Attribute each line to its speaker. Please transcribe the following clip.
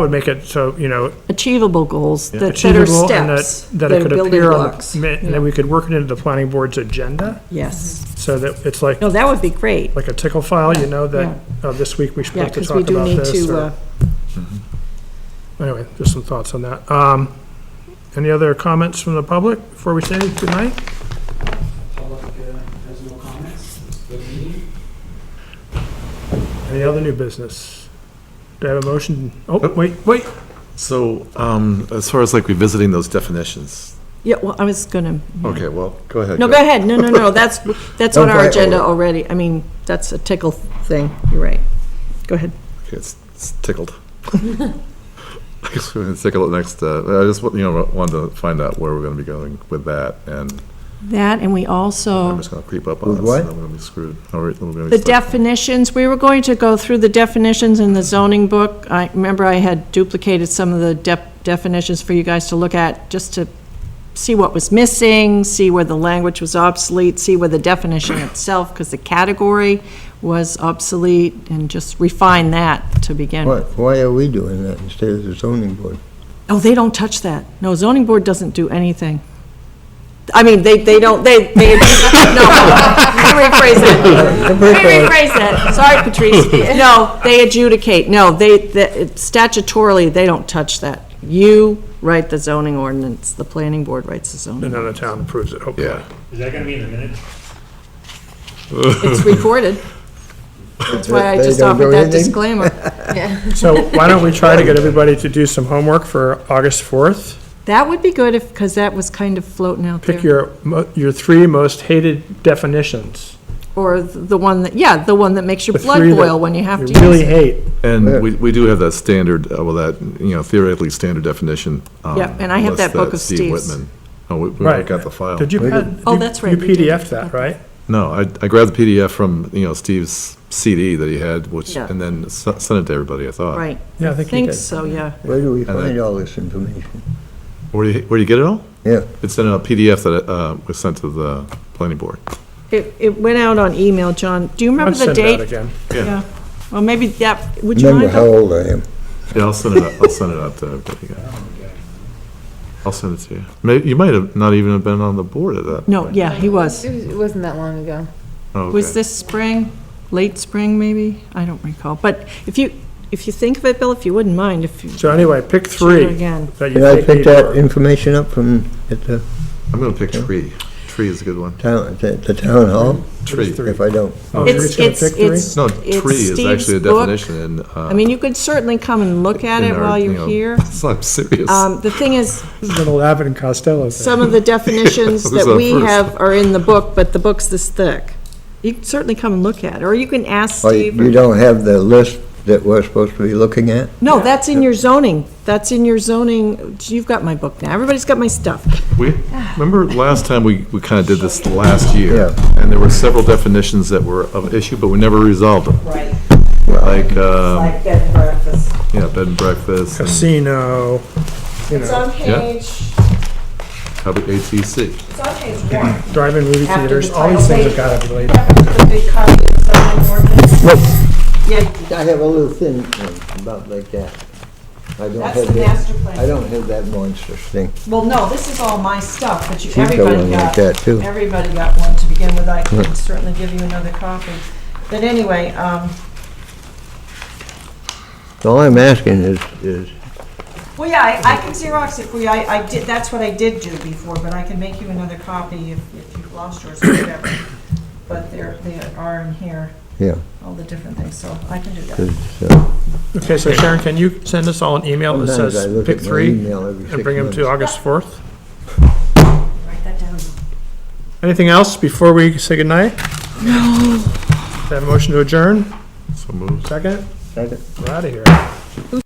Speaker 1: would make it so, you know,
Speaker 2: achievable goals that that are
Speaker 1: achievable and that,
Speaker 2: steps,
Speaker 1: that it
Speaker 2: that are
Speaker 1: could
Speaker 2: building
Speaker 1: appear on,
Speaker 2: blocks.
Speaker 1: the- and that we could work it into the planning board's agenda,
Speaker 2: Yes.
Speaker 1: so that it's like,
Speaker 2: No, that would be great.
Speaker 1: like a tickle file, you know, that, oh, this week we should
Speaker 2: Yeah,
Speaker 1: like to
Speaker 2: because we
Speaker 1: talk
Speaker 2: do
Speaker 1: about
Speaker 2: need
Speaker 1: this,
Speaker 2: to,
Speaker 1: or,
Speaker 2: uh,
Speaker 1: anyway, just some thoughts on that. Um, any other comments from the public before we say goodnight?
Speaker 3: Public uh, has no comments. Good meeting.
Speaker 1: Any other new business? Do I have a motion? Oh, wait, wait,
Speaker 4: So, um, as far as like revisiting those definitions,
Speaker 2: yeah, well, I was gonna,
Speaker 4: okay, well, go ahead.
Speaker 2: no, go ahead, no, no, no, that's, that's on
Speaker 4: Don't
Speaker 2: our
Speaker 4: fight
Speaker 2: agenda
Speaker 4: over it.
Speaker 2: already. I mean, that's a tickle thing, you're right. Go ahead.
Speaker 4: Okay, It's it's tickled. I guess we're gonna tickle it next, uh, I just, wa- you know, wanted to find out where we're gonna be going with that, and
Speaker 2: That, and we
Speaker 4: I'm
Speaker 2: also,
Speaker 4: just gonna creep up on
Speaker 5: With
Speaker 4: us,
Speaker 5: what?
Speaker 4: and then we're gonna be screwed. All right, then we're gonna be
Speaker 2: Oh. the
Speaker 4: stuck.
Speaker 2: definitions, we were going to go through the definitions in the zoning book. I remember I had duplicated some of the def- definitions for you guys to look at, just to see what was missing, see where the language was obsolete, see where the definition itself, because the category was obsolete, and just refine that to begin
Speaker 5: Why,
Speaker 2: with.
Speaker 5: why are we doing that instead of the zoning board?
Speaker 2: Oh, they don't touch that. No, zoning board doesn't do anything. I mean, they, they don't, they, they, no, let me rephrase that. Let me rephrase that. Sorry, Patrice. No, they adjudicate. No, they, the- statutorily, they don't touch that. You write the zoning ordinance, the planning board writes the
Speaker 1: and
Speaker 2: zoning.
Speaker 1: then the town approves it, hopefully.
Speaker 4: Yeah,
Speaker 3: Is that going to be in the minutes?
Speaker 2: It's recorded. That's why I
Speaker 5: They
Speaker 2: just
Speaker 5: don't do
Speaker 2: offered that
Speaker 5: anything?
Speaker 2: disclaimer.
Speaker 1: So why don't we try to get everybody to do some homework for August 4th?
Speaker 2: That would be good if, because that was kind of floating out
Speaker 1: Pick
Speaker 2: there.
Speaker 1: your, mo- your three most hated definitions.
Speaker 2: Or the one that, yeah, the one that makes your
Speaker 1: The
Speaker 2: blood
Speaker 1: three that
Speaker 2: boil when you have
Speaker 1: You
Speaker 2: to use
Speaker 1: really
Speaker 2: it.
Speaker 1: hate.
Speaker 4: and we, we do have that standard, uh, well, that, you know, theoretically standard definition. um,
Speaker 2: Yeah, and I have
Speaker 4: unless
Speaker 2: that book of
Speaker 4: Steve
Speaker 2: Steve's.
Speaker 4: Whitman. Oh, we, we
Speaker 1: Right.
Speaker 4: got the file.
Speaker 1: Did you, pad-
Speaker 2: Oh,
Speaker 1: you-
Speaker 2: that's right,
Speaker 1: you
Speaker 2: we did.
Speaker 1: PDF'd that, right?
Speaker 4: No, I, I grabbed the PDF from, you know, Steve's CD that he had, which,
Speaker 2: Yeah.
Speaker 4: and then s- sent it to everybody, I thought.
Speaker 2: Right.
Speaker 1: Yeah, I
Speaker 2: I
Speaker 1: think you
Speaker 2: think
Speaker 1: did.
Speaker 2: so, yeah.
Speaker 5: Where do we
Speaker 4: then-
Speaker 5: find all this information?
Speaker 4: Where do you, where do you get it all?
Speaker 5: Yeah,
Speaker 4: It's in a PDF that uh, was sent to the planning board.
Speaker 2: It, it went out on email, John. Do you
Speaker 1: I'll
Speaker 2: remember the
Speaker 1: send it out
Speaker 2: date?
Speaker 1: again.
Speaker 2: Yeah. Well, maybe that, would you
Speaker 5: remember
Speaker 2: mind?
Speaker 5: how old I am.
Speaker 4: Yeah, I'll send it, out- I'll send it out to everybody. yeah. I'll send it to you. May you might have not even have been on the board at that.
Speaker 2: No, yeah, he was.
Speaker 6: It was- it wasn't that long ago.
Speaker 4: Oh,
Speaker 2: Was
Speaker 4: okay.
Speaker 2: this spring, late spring, maybe? I don't recall. But if you, if you think of it, Bill, if you wouldn't mind, if you.
Speaker 1: So anyway, pick
Speaker 2: Shoot it
Speaker 1: three
Speaker 2: Again.
Speaker 1: that you
Speaker 5: Did I
Speaker 1: think
Speaker 5: pick
Speaker 1: need
Speaker 5: that
Speaker 1: work.
Speaker 5: information up from, at the
Speaker 4: I'm gonna pick tree. Tree is a good one.
Speaker 5: town, at the- the town hall?
Speaker 4: Tree.
Speaker 1: three?
Speaker 5: If I don't,
Speaker 1: Oh,
Speaker 2: It's-
Speaker 1: Drew's gonna
Speaker 2: it's-
Speaker 1: pick three?
Speaker 2: it's-
Speaker 4: No,
Speaker 2: It's
Speaker 4: tree is actually a
Speaker 2: Steve's book.
Speaker 4: definition in. uh,
Speaker 2: I mean, you could certainly come and look at
Speaker 4: in
Speaker 2: it
Speaker 4: our,
Speaker 2: while
Speaker 4: you
Speaker 2: you're
Speaker 4: know,
Speaker 2: here.
Speaker 4: I'm serious.
Speaker 2: Um, the thing is,
Speaker 1: This is an Abbott and Costello thing.
Speaker 2: some of the definitions
Speaker 4: Who's
Speaker 2: that
Speaker 4: on
Speaker 2: we
Speaker 4: first?
Speaker 2: have are in the book, but the book's this thick. You can certainly come and look at it, or you can ask
Speaker 5: oh,
Speaker 2: Steve. or-
Speaker 5: you don't have the list that we're supposed to be looking at?
Speaker 2: No, that's in your zoning. That's in your zoning. You've got my book now. Everybody's got my stuff.
Speaker 4: We, remember last time we, we kind of did this last year?
Speaker 5: Yeah.
Speaker 4: And there were several definitions that were of issue, but we never resolved them. Right. Like, um,
Speaker 2: bed and breakfast.
Speaker 4: yeah, bed and breakfast, and
Speaker 1: Casino, you know,
Speaker 4: Yeah. probably ATC.
Speaker 2: it's on page one.
Speaker 1: drive-in movie
Speaker 2: After the
Speaker 1: theaters, all these
Speaker 2: title
Speaker 1: things have
Speaker 2: page.
Speaker 1: gotta be related.
Speaker 2: The big copy of the zoning ordinance. Yeah,
Speaker 5: I have a little thin one, about like that. I don't
Speaker 2: that's the
Speaker 5: have that,
Speaker 2: master
Speaker 5: I
Speaker 2: plan.
Speaker 5: don't have that monstrous thing.
Speaker 2: Well, no, this is all my stuff, but you,
Speaker 5: She's got
Speaker 2: everybody
Speaker 5: one like
Speaker 2: got,
Speaker 5: that, too.
Speaker 2: everybody got one to begin with. I can certainly give you another copy. But anyway, um,
Speaker 5: All I'm asking is, is,
Speaker 2: well, yeah, I, I can Xerox it for you. I, I did, that's what I did do before, but I can make you another copy if, if you've lost yours or whatever. But there, they are in here.
Speaker 5: yeah,
Speaker 2: all the different things, so I can do that.
Speaker 5: 'cause, uh,
Speaker 1: Okay, so Sharon, can you send us all an email that
Speaker 5: sometimes I
Speaker 1: says
Speaker 5: look
Speaker 1: pick
Speaker 5: at my
Speaker 1: three
Speaker 5: email every six
Speaker 1: and bring them to
Speaker 5: months.
Speaker 1: August 4th?
Speaker 2: Write that down.
Speaker 1: Anything else before we say goodnight? No. Have a motion to adjourn?
Speaker 4: So moved.
Speaker 1: Second?
Speaker 5: Second.
Speaker 1: We're out of here.